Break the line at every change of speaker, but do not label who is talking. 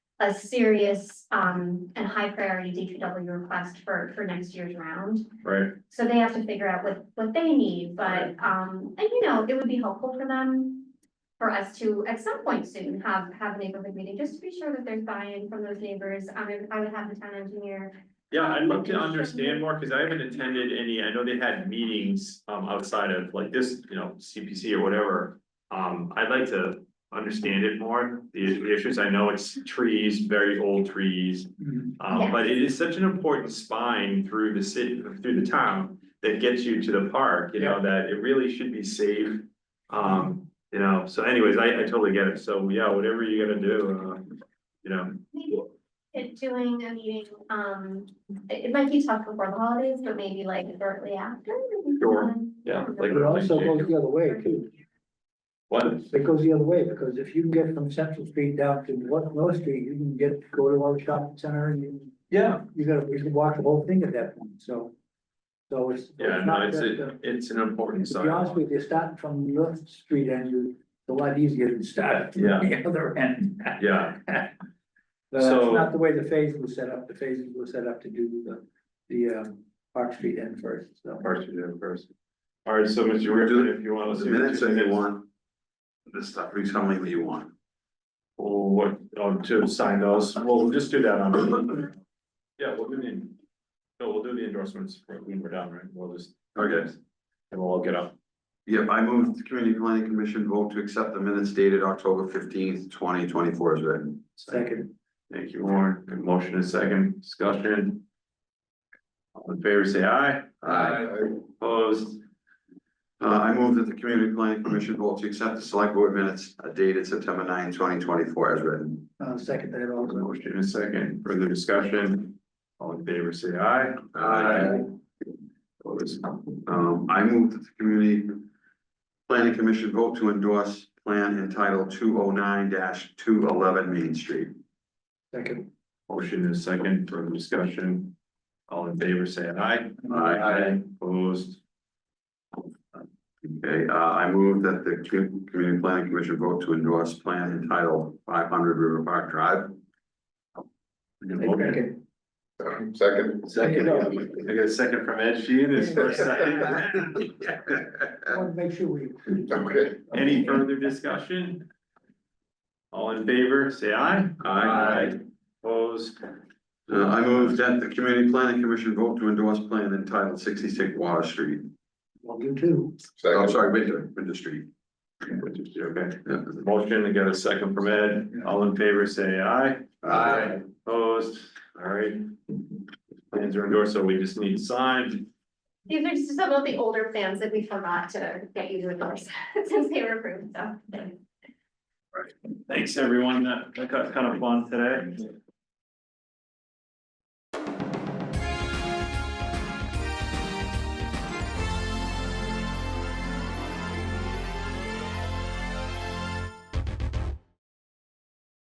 a serious um and high priority DPW request for for next year's round.
right?
So they have to figure out what what they need, but um, and you know, it would be helpful for them. For us to at some point soon have have a neighborhood meeting, just to be sure that there's buy-in from those neighbors. I mean, I would have the town engineer.
Yeah, I'd love to understand more, cause I haven't attended any, I know they had meetings, um, outside of like this, you know, CPC or whatever. Um, I'd like to understand it more, the the issues, I know it's trees, very old trees. Um,
Yes.
but it is such an important spine through the city, through the town, that gets you to the park, you know, that it really should be saved. Um, you know, so anyways, I, I totally get it, so yeah, whatever you're gonna do, uh, you know,
Maybe it- doing a meeting, um, it it might be tough before the holidays, but maybe like shortly after. maybe
Sure.
sometime.
yeah,
Um,
like.
But it also goes the other way too.
What?
It goes the other way because if you can get from Central Street down to North, North Street, you can get, go to our shopping center and you,
Yeah.
you gotta, you can walk the whole thing at that point, so. So it's. it's
Yeah, no,
not
it's,
just
a- it's an important
To be honest
sidewalk.
with you, starting from North Street and you, it's a lot easier than starting
Yeah.
from the other end.
Yeah,
But That's
So-
not the way the phase was set up. The phases were set up to do the, the, um, Park Street end first, so.
parts of it first. All right, so Mr. Griffin, if you want to.
The
do
minutes
two
that you want. The stuff, you tell me what you want.
Well, what, oh, to sign those, well, we'll just do that on. Yeah, we'll do the, no, we'll do the endorsements when we're done, right? We'll just.
Okay.
And we'll all get up.
Yep, I move the community planning commission vote to accept the minutes dated October fifteenth, twenty twenty-four as written.
Second,
Thank you, Warren. Good motion and second discussion. All in favor, say aye. Opposed?
Uh, I move that the community planning commission vote to accept the select board minutes uh, dated September 9, 2024, as written.
uh, second that
Hold the
also.
Motion and second, further discussion. All in favor, say aye.
Opposed. Um, I move that the community planning commission vote to endorse plan entitled two oh nine two eleven Main Street.
Second,
Motion is second, further discussion. All in favor, say aye. Opposed,
Okay, uh, I move that the commu- Community Planning Commission vote to endorse plan entitled five hundred River Park Drive.
we can vote.
second,
Second. Second,
I got a second from Ed Sheehan, it's first second.
I want to make sure we.
Okay.
Any further discussion? All in favor, say aye.
Aye.
Opposed,
Uh, I move that the Community Planning Commission vote to endorse plan entitled sixty-six Water Street.
Well, you too.
I'm sorry, Winter, Winter Street.
which is, okay.
Yeah.
Motion, I got a second from Ed, all in favor, say aye.
Aye.
Opposed, all right. Plans are endorsed, so we just need signed.
These are just some of the older plans that we forgot to get you to endorse since they were approved, so.
Thanks, everyone, that, that got kind of fun today.